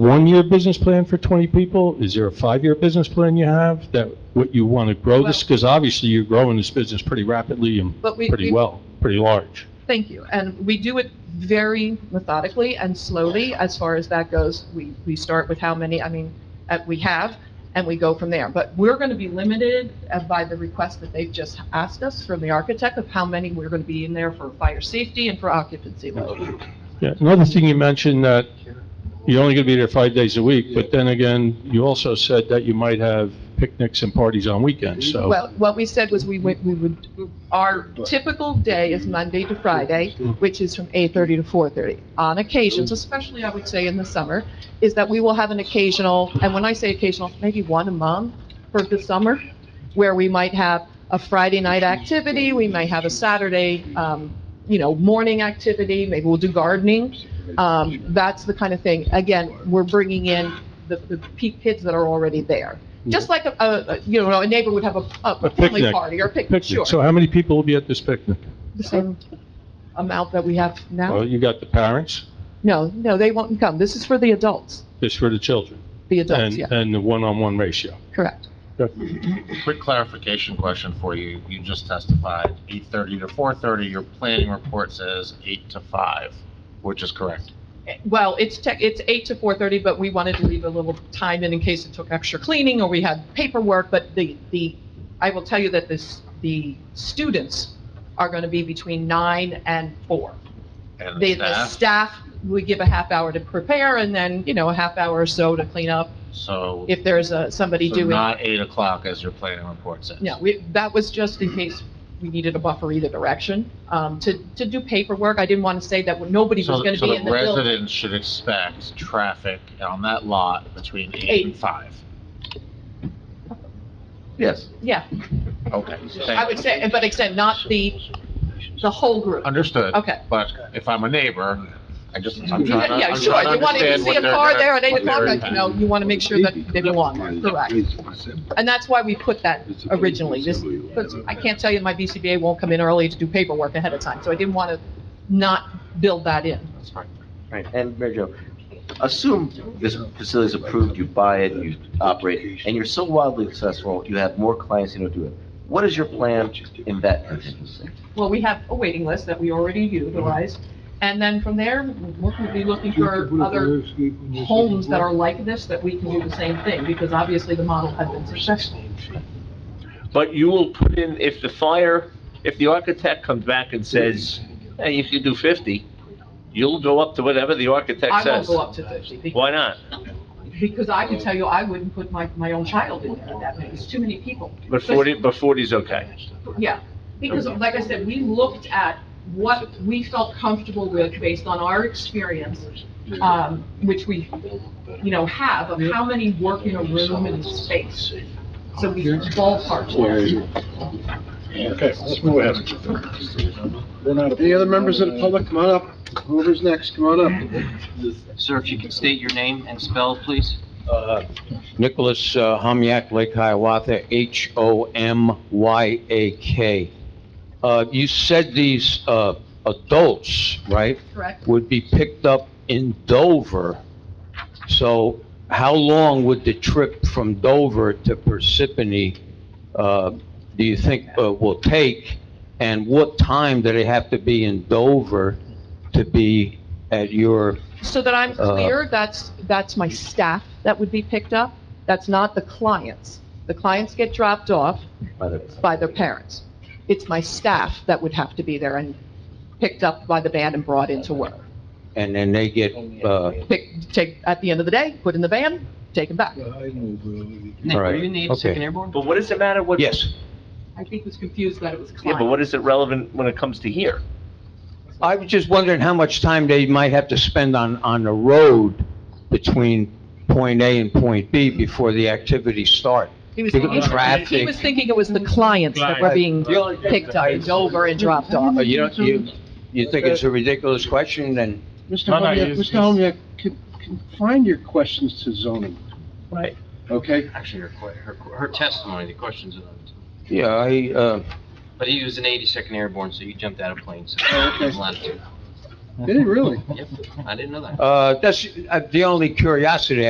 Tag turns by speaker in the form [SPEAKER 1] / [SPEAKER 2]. [SPEAKER 1] one-year business plan for 20 people? Is there a five-year business plan you have that, what you want to grow this? Because obviously you're growing this business pretty rapidly and
[SPEAKER 2] But we,
[SPEAKER 1] pretty
[SPEAKER 2] we-
[SPEAKER 1] well, pretty large.
[SPEAKER 2] thank you. And we do it very methodically and slowly as far as that goes. We, we start with how many, I mean, uh, we have, and we go from there. But we're going to be limited uh, by the request that they've just asked us from the architect of how many we're going to be in there for fire safety and for occupancy load.
[SPEAKER 1] Yeah, another thing you mentioned that you're only going to be there five days a week, but then again, you also said that you might have picnics and parties on weekends, so.
[SPEAKER 2] Well, what we said was we would, we would, our typical day is Monday to Friday, which is from 8:30 to 4:30. On occasions, especially I would say in the summer, is that we will have an occasional, and when I say occasional, maybe one a month for the summer, where we might have a Friday night activity, we may have a Saturday, um, you know, morning activity, maybe we'll do gardening. Um, That's the kind of thing. Again, we're bringing in the, the pe- kids that are already there. Just like a, a, a- you know, a neighbor would have a, a family
[SPEAKER 1] picnic.
[SPEAKER 2] party or a picnic, sure.
[SPEAKER 1] Picnic, so how many people will be at this picnic?
[SPEAKER 2] The same amount that we have
[SPEAKER 1] Well,
[SPEAKER 2] now.
[SPEAKER 1] you got the parents,
[SPEAKER 2] No, no, they won't come. This is for the adults,
[SPEAKER 1] this for the children,
[SPEAKER 2] the adults,
[SPEAKER 1] and,
[SPEAKER 2] yeah,
[SPEAKER 1] and the one-on-one ratio.
[SPEAKER 2] correct.
[SPEAKER 3] Quick clarification question for you. You just testified 8:30 to 4:30. Your planning report says 8 to 5, which is correct.
[SPEAKER 2] Well, it's tech, it's eight to four thirty, but we wanted to leave a little time in in case it took extra cleaning or we had paperwork, but the, the, I will tell you that this, the students are gonna be between nine and four.
[SPEAKER 3] And
[SPEAKER 2] The,
[SPEAKER 3] the
[SPEAKER 2] the
[SPEAKER 3] staff,
[SPEAKER 2] staff, we give a half hour to prepare and then, you know, a half hour or so to clean up
[SPEAKER 3] so
[SPEAKER 2] if there's a, somebody
[SPEAKER 3] so
[SPEAKER 2] doing.
[SPEAKER 3] not 8 o'clock as your planning report says.
[SPEAKER 2] No, we, that was just in case we needed a buffer either direction, um, to, to do paperwork. I didn't want to say that nobody was
[SPEAKER 3] So
[SPEAKER 2] going to
[SPEAKER 3] so
[SPEAKER 2] be
[SPEAKER 3] the
[SPEAKER 2] in the building.
[SPEAKER 3] residents should expect traffic on that lot between 8 and
[SPEAKER 2] Eight.
[SPEAKER 3] 5. Yes.
[SPEAKER 2] Yeah,
[SPEAKER 3] Okay.
[SPEAKER 2] I
[SPEAKER 3] Thank
[SPEAKER 2] would
[SPEAKER 3] you.
[SPEAKER 2] say, but except not the, the whole group.
[SPEAKER 3] Understood.
[SPEAKER 2] Okay.
[SPEAKER 3] But if I'm a neighbor, I just, I'm trying to,
[SPEAKER 2] Yeah, yeah,
[SPEAKER 3] I'm
[SPEAKER 2] sure.
[SPEAKER 3] trying to
[SPEAKER 2] You want, if
[SPEAKER 3] understand
[SPEAKER 2] you see
[SPEAKER 3] what
[SPEAKER 2] a
[SPEAKER 3] they're
[SPEAKER 2] car
[SPEAKER 3] gonna-
[SPEAKER 2] there at eight
[SPEAKER 3] what they're
[SPEAKER 2] o'clock, you
[SPEAKER 3] impacting.
[SPEAKER 2] know, you want to make sure that they belong there, correct? And that's why we put that originally, this, because I can't tell you my BCBA won't come in early to do paperwork ahead of time, so I didn't want to not build that in.
[SPEAKER 3] That's fine.
[SPEAKER 4] Right, and Mary Jo, assume this facility is approved, you buy it, you operate, and you're so wildly successful, you have more clients than you do it. What is your plan in that contingency?
[SPEAKER 2] Well, we have a waiting list that we already utilized, and then from there, we'll be looking for other homes that are like this that we can do the same thing, because obviously the model has been successful.
[SPEAKER 5] But you will put in, if the fire, if the architect comes back and says, hey, you can do 50, you'll go up to whatever the architect
[SPEAKER 2] I
[SPEAKER 5] says.
[SPEAKER 2] won't go up to fifty, be-
[SPEAKER 5] Why not?
[SPEAKER 2] because I can tell you, I wouldn't put my, my own child in there at that many, it's too many people.
[SPEAKER 5] But 40, but 40's okay.
[SPEAKER 2] Yeah, because like I said, we looked at what we felt comfortable with based on our experience, um, which we, you know, have of how many work in a room and space. So we ballparked. it.
[SPEAKER 6] Okay, let's move ahead. Any other members of the public, come on up. Whoever's next, come on
[SPEAKER 7] Sir, if you could state your name and spell, please.
[SPEAKER 6] up.
[SPEAKER 8] Nicholas uh, Homyak, Lake Hiawatha, H-O-M-Y-A-K. Uh, You said these uh, adults, right,
[SPEAKER 2] Correct.
[SPEAKER 8] would be picked up in Dover. So how long would the trip from Dover to Parsippany, uh, do you think, uh, will take? And what time do they have to be in Dover to be at your,
[SPEAKER 2] So that I'm
[SPEAKER 8] Uh,
[SPEAKER 2] clear, that's, that's my staff that would be picked up. That's not the clients. The clients get dropped off
[SPEAKER 4] By the-
[SPEAKER 2] by their parents. It's my staff that would have to be there and picked up by the band and brought into work.
[SPEAKER 8] and then they get uh,
[SPEAKER 2] Pick, take, at the end of the day, put in the van, take them back.
[SPEAKER 7] Nick, are
[SPEAKER 8] Alright,
[SPEAKER 7] you in the
[SPEAKER 8] okay.
[SPEAKER 7] 82nd Airborne?
[SPEAKER 5] But what does it matter what?
[SPEAKER 8] Yes.
[SPEAKER 2] I think was confused that it was
[SPEAKER 5] Yeah, but
[SPEAKER 2] client.
[SPEAKER 5] what is it relevant when it comes to here?
[SPEAKER 8] I was just wondering how much time they might have to spend on, on the road between point A and point B before the activities start.
[SPEAKER 2] He was
[SPEAKER 8] Think of
[SPEAKER 2] thinking, he
[SPEAKER 8] traffic.
[SPEAKER 2] was thinking it was the clients that were being
[SPEAKER 8] The only thing
[SPEAKER 2] picked up
[SPEAKER 8] I-
[SPEAKER 2] and Dover and dropped off.
[SPEAKER 8] Uh, You don't, you, you think it's a ridiculous question, then
[SPEAKER 6] Mr.
[SPEAKER 3] No, no,
[SPEAKER 6] Homyak,
[SPEAKER 3] it's-
[SPEAKER 6] Mr. Homyak, con- confine your questions to zoning,
[SPEAKER 5] Right.
[SPEAKER 6] okay?
[SPEAKER 7] Actually, her, que- her, her testimony, the questions, are on-
[SPEAKER 8] yeah, I, uh,
[SPEAKER 7] but he was an 82nd Airborne, so you jumped out of plane, so.
[SPEAKER 6] Oh, okay.
[SPEAKER 7] Latitude.
[SPEAKER 6] Did it really?
[SPEAKER 7] Yep, I didn't know that.
[SPEAKER 8] Uh, that's uh, the only curiosity